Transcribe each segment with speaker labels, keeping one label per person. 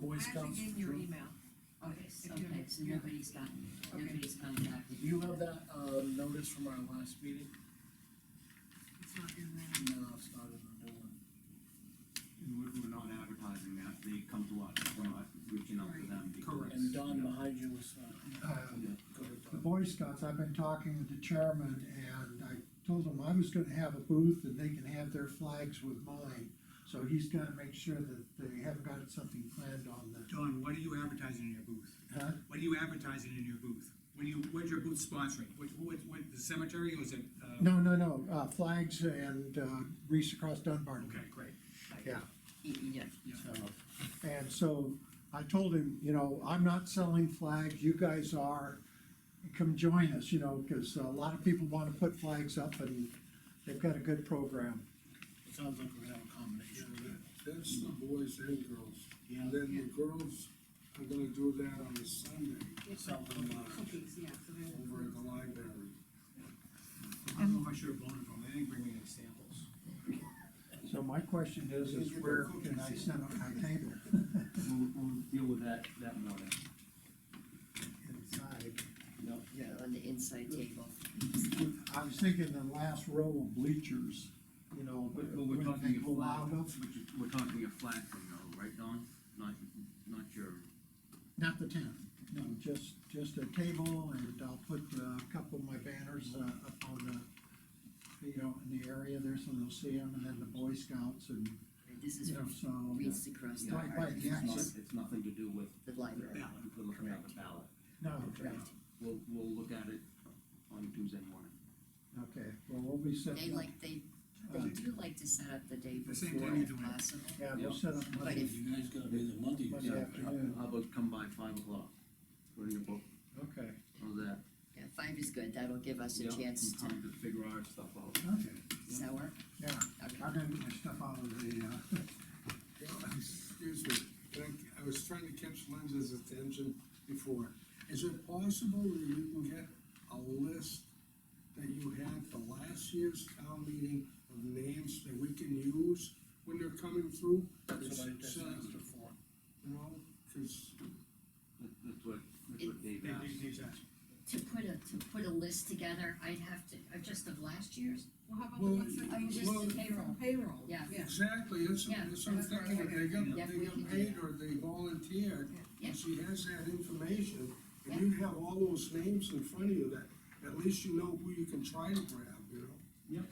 Speaker 1: this
Speaker 2: I
Speaker 1: comes
Speaker 2: actually gave you your
Speaker 1: through?
Speaker 2: email.
Speaker 3: Okay, so,
Speaker 2: If you-
Speaker 3: okay, so
Speaker 2: yeah.
Speaker 3: nobody's gotten, it.
Speaker 2: Okay.
Speaker 3: nobody's contacted.
Speaker 1: Do you have that, uh, notice from our last meeting?
Speaker 2: It's not in there.
Speaker 1: No, it's not in the new one.
Speaker 4: And we're, we're not advertising that, they come to us, we're not reaching out to them. because-
Speaker 5: Correct.
Speaker 1: And Don behind you was, uh,
Speaker 5: Um,
Speaker 1: go ahead,
Speaker 5: the
Speaker 1: Don.
Speaker 5: Boy Scouts, I've been talking with the chairman and I told him I was gonna have a booth and they can have their flags with mine. So he's gotta make sure that they haven't got something planned on the,
Speaker 6: Don, what are you advertising in your booth?
Speaker 5: huh?
Speaker 6: What are you advertising in your booth? What do you, what's your booth sponsoring? What, what, what, the cemetery or is it? uh,
Speaker 5: No, no, no, uh, flags and, uh, Reese across Dunbar.
Speaker 6: Okay, great.
Speaker 5: Yeah.
Speaker 3: Y- Yeah,
Speaker 5: So, And so I told him, you know, I'm not selling flags, you guys are, come join us, you know, because a lot of people want to put flags up and they've got a good program.
Speaker 1: It sounds like we're gonna have a combination. of that.
Speaker 7: That's the boys and girls.
Speaker 1: Yeah.
Speaker 7: And then the girls are gonna do that on a Sunday
Speaker 2: It's
Speaker 1: Sell them, uh,
Speaker 2: cookies, yeah, so they're.
Speaker 7: over at the library.
Speaker 6: I don't know if I should have blown it from, they didn't bring me any samples.
Speaker 5: So my question is, is where can I set up my table?
Speaker 4: We'll, we'll deal with that, that more then.
Speaker 5: Inside.
Speaker 4: No.
Speaker 3: yeah, on the inside table.
Speaker 5: I was thinking the last row of bleachers, you know.
Speaker 4: But, but we're talking
Speaker 5: wouldn't
Speaker 4: a
Speaker 5: they go
Speaker 4: flat,
Speaker 5: out of-
Speaker 4: which is- we're talking a flat thing though, right, Don? Not, not your,
Speaker 5: Not the tent, no, just, just a table and I'll put uh, a couple of my banners uh, up on the, you know, in the area there so they'll see them and then the Boy Scouts and,
Speaker 3: This is
Speaker 5: you know,
Speaker 3: from
Speaker 5: so.
Speaker 3: Reese across the,
Speaker 5: Right, right,
Speaker 4: it's
Speaker 5: yeah,
Speaker 4: not,
Speaker 5: it's-
Speaker 4: it's nothing to do with
Speaker 3: the
Speaker 4: the
Speaker 3: library.
Speaker 4: ballot, we're looking at the ballot.
Speaker 5: No, yeah,
Speaker 3: Correct.
Speaker 4: We'll, we'll look at it on Tuesday morning.
Speaker 5: okay, well, we'll be
Speaker 3: They
Speaker 5: setting up,
Speaker 3: like, they,
Speaker 5: Uh,
Speaker 3: they do like to set up the day
Speaker 6: The same
Speaker 3: before
Speaker 6: time you
Speaker 3: if
Speaker 6: do it.
Speaker 3: possible.
Speaker 5: yeah, we'll set up
Speaker 3: But
Speaker 5: Monday,
Speaker 3: if,
Speaker 1: You guys gotta be the Monday.
Speaker 5: Monday afternoon,
Speaker 4: How about come by five o'clock? Put in your book,
Speaker 5: okay,
Speaker 4: how's that?
Speaker 3: yeah, five is good, that'll give us a
Speaker 4: Yeah,
Speaker 3: chance to
Speaker 4: Time to figure our stuff out.
Speaker 5: okay,
Speaker 3: sour.
Speaker 5: yeah.
Speaker 3: Okay.
Speaker 5: I'm gonna get my stuff out of the, uh,
Speaker 7: Yeah, Excuse me, can I, I was trying to catch Linda's attention before. Is it possible that you can get a list that you had for last year's town meeting of names that we can use when they're coming through?
Speaker 1: That's what I
Speaker 7: It's,
Speaker 1: just
Speaker 7: uh,
Speaker 1: asked her for.
Speaker 7: You know, cause
Speaker 4: That- That's what, that's what Dave
Speaker 6: They-
Speaker 4: asked.
Speaker 6: they- they
Speaker 3: To
Speaker 6: just-
Speaker 3: put a, to put a list together, I'd have to, uh, just of last year's,
Speaker 2: Well, how about the
Speaker 7: Well,
Speaker 2: ones that?
Speaker 3: I mean, just
Speaker 7: Well-
Speaker 3: the payroll.
Speaker 2: Payroll.
Speaker 3: Yeah.
Speaker 7: Exactly, that's,
Speaker 3: Yeah,
Speaker 7: that's what I'm
Speaker 2: that's what I
Speaker 7: thinking, if they got,
Speaker 3: Yeah,
Speaker 7: they
Speaker 3: we can
Speaker 7: got
Speaker 3: do
Speaker 7: paid
Speaker 3: that.
Speaker 7: or they volunteered,
Speaker 3: Yeah.
Speaker 7: and she has that information,
Speaker 3: Yeah.
Speaker 7: and you have all those names in front of you that, at least you know who you can try to grab, you know?
Speaker 4: Yep,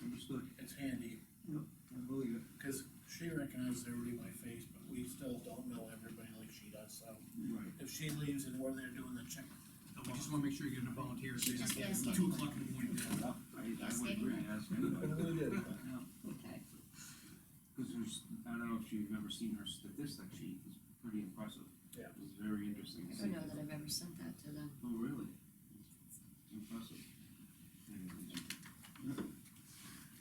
Speaker 4: understood.
Speaker 1: It's handy,
Speaker 4: I believe it.
Speaker 1: cause she recognizes everybody by face, but we still don't know everybody like she does, so.
Speaker 4: Right.
Speaker 1: If she leaves and we're there doing the check,
Speaker 6: We just wanna make sure you're getting the volunteers, they
Speaker 3: Just
Speaker 6: don't get
Speaker 3: ask
Speaker 6: two
Speaker 3: anyone.
Speaker 6: o'clock in the morning.
Speaker 4: I, I would agree, ask anybody.
Speaker 3: Okay.
Speaker 4: Cause there's, I don't know if you've ever seen her statistic sheet, it's pretty impressive.
Speaker 1: Yeah.
Speaker 4: It's very interesting.
Speaker 3: I don't know that I've ever sent that to them.
Speaker 4: Oh, really? It's Impressive.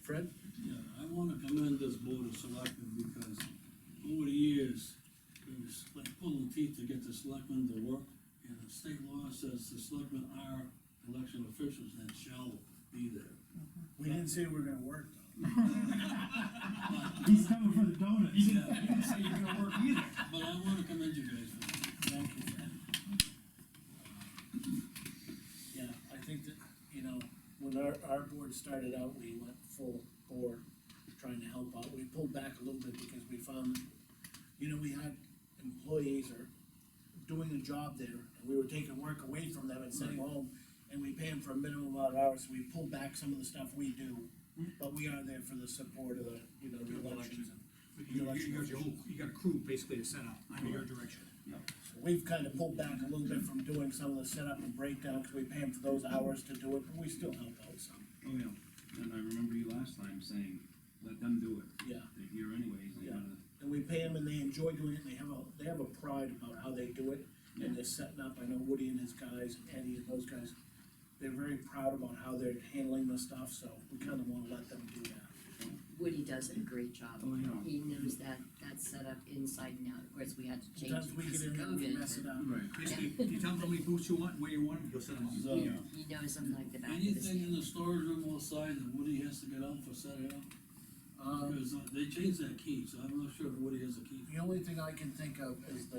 Speaker 1: Fred?
Speaker 8: Yeah, I wanna commend this board of selectmen because over the years, it was like pulling teeth to get the selectmen to work. And the state law says the selectmen are election officials and shall be there.
Speaker 1: We didn't say we were gonna work though.
Speaker 8: He's coming for the donuts.
Speaker 6: You didn't say you're gonna work either.
Speaker 8: But I wanna commend you guys for that. Thank you.
Speaker 1: Yeah, I think that, you know, when our, our board started out, we went full bore trying to help out. We pulled back a little bit because we found, you know, we had employees or doing a job there, and we were taking work away from them and sending home, and we pay them for a minimum amount of hours, so we pulled back some of the stuff we do. But we are there for the support of the, you know, the elections.
Speaker 6: But You, you got your whole, you got a crew basically to set up under your direction.
Speaker 1: We've kind of pulled back a little bit from doing some of the setup and breakdown, because we pay them for those hours to do it, but we still help out some.
Speaker 4: Oh, yeah, and I remember you last time saying, let them do it,
Speaker 1: Yeah,
Speaker 4: they're here anyways, they
Speaker 1: Yeah.
Speaker 4: gotta.
Speaker 1: and we pay them and they enjoy doing it, and they have a, they have a pride about how they do it. And they're setting up, I know Woody and his guys, and Eddie and those guys, they're very proud about how they're handling the stuff, so we kind of want to let them do that.
Speaker 3: Woody does a great job.
Speaker 4: Oh, yeah.
Speaker 3: He knows that, that's set up inside and out, of course, we had to change
Speaker 1: Sometimes
Speaker 3: it
Speaker 1: we
Speaker 3: because
Speaker 1: get
Speaker 3: of
Speaker 1: in there, we
Speaker 3: COVID.
Speaker 1: mess it up.
Speaker 4: Right.
Speaker 6: Basically, you tell them how many booths you want, where you want them, you'll set them up.
Speaker 3: but
Speaker 8: So,
Speaker 3: He he knows them like the back of his
Speaker 8: anything in
Speaker 3: hand.
Speaker 8: the storage room outside that Woody has to get out for setting up,
Speaker 1: Um,
Speaker 8: because uh, they changed that key, so I'm not sure if Woody has a key.
Speaker 1: the only thing I can think of is the